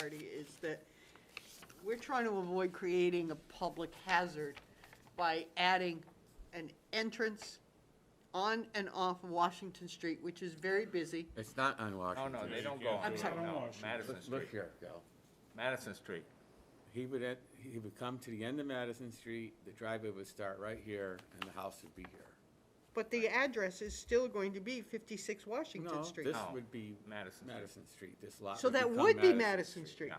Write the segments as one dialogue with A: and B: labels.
A: Artie, is that we're trying to avoid creating a public hazard by adding an entrance on and off Washington Street, which is very busy.
B: It's not on
C: Oh, No,
B: Washington.
C: no, they
B: Street.
C: don't go on.
A: I'm sorry.
C: No, Madison
B: Look- Look
C: Street,
B: here, Gal.
C: Madison Street.
B: He would, en- he would come to the end of Madison Street, the driveway would start right here, and the house would be here.
A: But the address is still going to be 56
B: No,
A: Washington Street.
B: this
C: No.
B: would be
C: Madison Street.
B: Madison Street, this lot.
A: So that
B: become
A: would be Madison Street.
C: Yeah.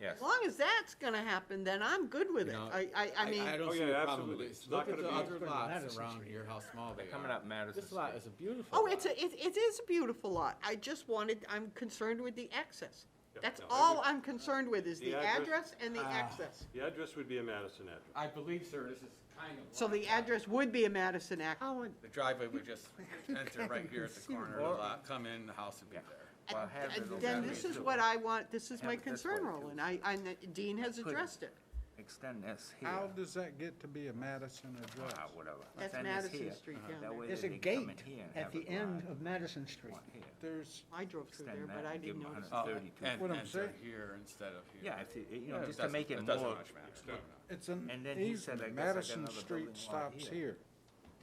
C: Yes.
A: As long as that's gonna happen, then I'm good with it.
B: You know,
A: I, I, I mean,
B: I don't
D: Oh,
B: see
D: yeah,
B: a problem with
D: absolutely.
B: this.
D: It's
B: Look
D: not
B: at
D: gonna
B: the
D: be-
B: other
D: it's gonna be
B: lots
D: Madison
B: around
D: Street.
B: here, how small they are.
C: Coming up Madison
B: This lot is
C: Street.
B: a beautiful
A: oh,
B: lot.
A: it's, a it, it is a beautiful lot. I just wanted, I'm concerned with the access.
D: Yeah,
A: That's
D: no, I
A: all
D: would-
A: I'm concerned with, is the
D: The address-
A: address and the access.
D: The address would be a Madison address.
B: I believe, sir, this is kind of.
A: So the
B: like-
A: address would be a Madison access.
B: How would- The driveway would just enter right here at the corner of the lot, come in, the house would be there.
C: Well, have it
A: And
C: over
A: Then
C: that
A: this
C: way,
A: is
C: too.
A: what I want, this is
C: Have
A: my
C: it this
A: concern,
C: way, too.
A: Roland. I, I, Dean has addressed it.
C: Extend this here.
E: How does that get to be a Madison address?
C: Ah, whatever.
A: That's
C: Extend this
A: Madison
C: here.
A: Street
C: Uh-huh.
A: down
C: That
A: there.
C: way
F: There's
C: they
F: a
C: can come in
F: gate
C: here and
F: at
C: have
F: the
C: a
F: end
C: garage.
F: of Madison Street.
C: One here.
E: There's,
A: I drove through
C: Extend
A: there, but
C: that
A: I
C: and give
A: didn't
C: 'em a
A: notice.
C: hundred
A: it.
C: Thirty-two.
B: Uh, And
E: What I'm
B: enter
E: saying.
B: here instead of here.
C: Yeah, if you, you
B: Yeah,
C: know,
B: it
C: just to
B: doesn't-
C: make it
B: It doesn't
C: more.
B: much matter.
E: it's an
C: And then he said, I
E: easement,
C: guess I got
E: Madison
C: another
E: Street
C: building lot
E: stops
C: here.
E: here,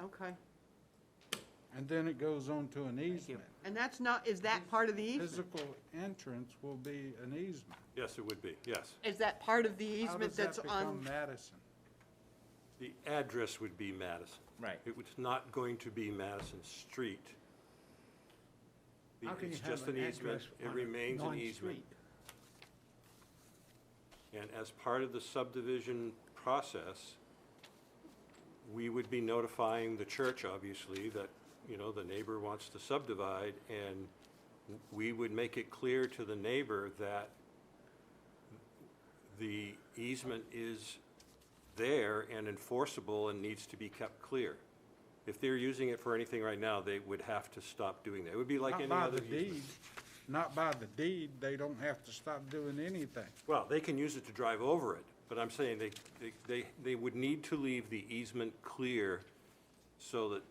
A: Okay.
E: and then it goes on to an easement.
A: And that's not, is that part of the easement?
E: Physical entrance will be an easement.
D: Yes, it would be, yes.
A: Is that part of the
E: How
A: easement
E: does
A: that's
E: that become
A: on,
E: Madison?
D: The address would be Madison.
C: Right.
D: It was not going to be Madison Street. The-
F: How can you
D: It's
F: have
D: just
F: an
D: an easement.
F: address
D: It
F: on a
D: remains an easement.
F: non-street?
D: And as part of the subdivision process, we would be notifying the church, obviously, that, you know, the neighbor wants to subdivide, and we would make it clear to the neighbor that the easement is there and enforceable and needs to be kept clear. If they're using it for anything right now, they would have to stop doing that. It would be like
E: Not
D: any
E: by
D: other
E: the
D: easement.
E: deed, not by the deed, they don't have to stop doing anything.
D: Well, they can use it to drive over it, but I'm saying they, they- they, they would need to leave the easement clear so that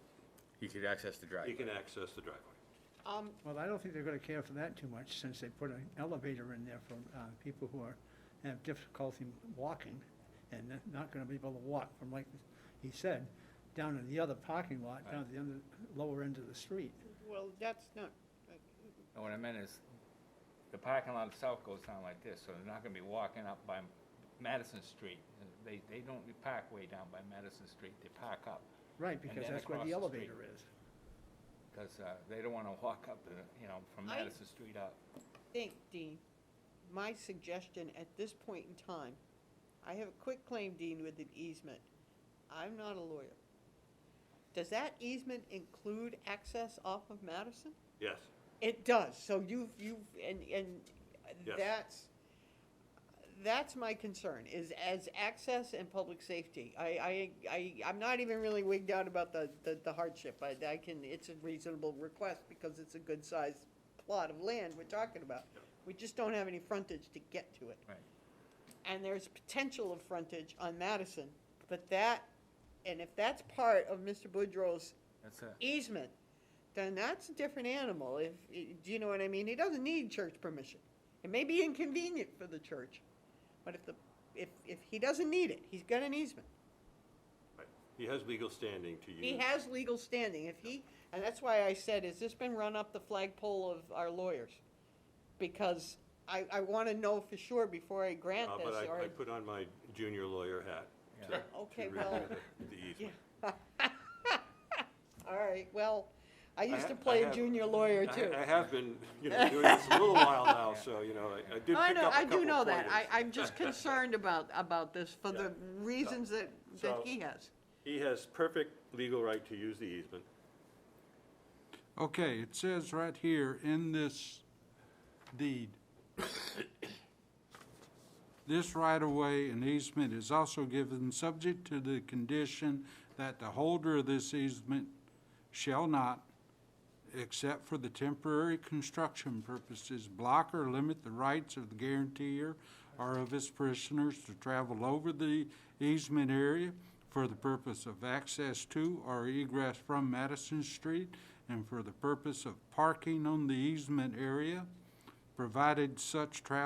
B: You could access the
D: you
B: driveway.
D: can access the driveway.
A: um,
F: Well, I don't think they're gonna care for that too much, since they put an elevator in there for, uh, people who are, have difficulty walking, and they're not gonna be able to walk from, like he said, down in the other parking lot, down at the end, of- lower end of the street.
A: well, that's not,
C: And what I meant is, the parking lot itself goes down like this, so they're not gonna be walking up by Madison Street. They, they don't park way down by Madison Street, they park up,
F: Right,
C: And
F: because
C: then
F: that's where
C: across
F: the
C: the street.
F: elevator is.
C: because, uh, they don't wanna walk up, the- you know, from
A: I-
C: Madison Street up.
A: think, Dean, my suggestion at this point in time, I have a quick claim, Dean, with an easement. I'm not a lawyer. Does that easement include access off of Madison?
D: Yes.
A: It does, so you've, you've, and, and
D: Yes.
A: that's, that's my concern, is as access and public safety. I, I, I, I'm not even really wigged out about the, the the hardship, I, I can, it's a reasonable request because it's a good-sized plot of land we're talking about. We just don't have any frontage to get to it.
C: Right.
A: And there's potential of frontage on Madison, but that, and if that's part of Mr. Boudreaux's
C: That's it.
A: easement, then that's a different animal. If, do you know what I mean? He doesn't need church permission. It may be inconvenient for the church, but if the, if, if he doesn't need it, he's got an easement.
D: Right. He has legal standing to use.
A: He has legal standing. If he, and that's why I said, has this been run up the flagpole of our lawyers? Because I, I wanna know for sure before I grant
D: Uh,
A: this
D: But
A: or.
D: I, I put on my junior lawyer hat to-
C: Yeah.
A: Okay,
D: to
A: well,
D: review the- the
A: yeah.
D: easement.
A: All right, well, I used
D: ha-
A: to
D: I
A: play a
D: have-
A: junior lawyer
D: I-
A: too.
D: I have been, you know, doing this a little while now, so, you know, I I did pick
A: I
D: up a
A: know, I
D: couple
A: do know that. I,
D: pointers.
A: I'm just concerned about, about this for the reasons that, that
D: So-
A: he has.
D: He has perfect legal right to use the easement.
E: Okay, it says right here in this deed, this right-of-way and easement is also given subject to the condition that the holder of this easement shall not, except for the temporary construction purposes, block or limit the rights of the guarantor or of his prisoners to travel over the easement area for the purpose of access to or egress from Madison Street and for the purpose of parking on the easement area, provided such travel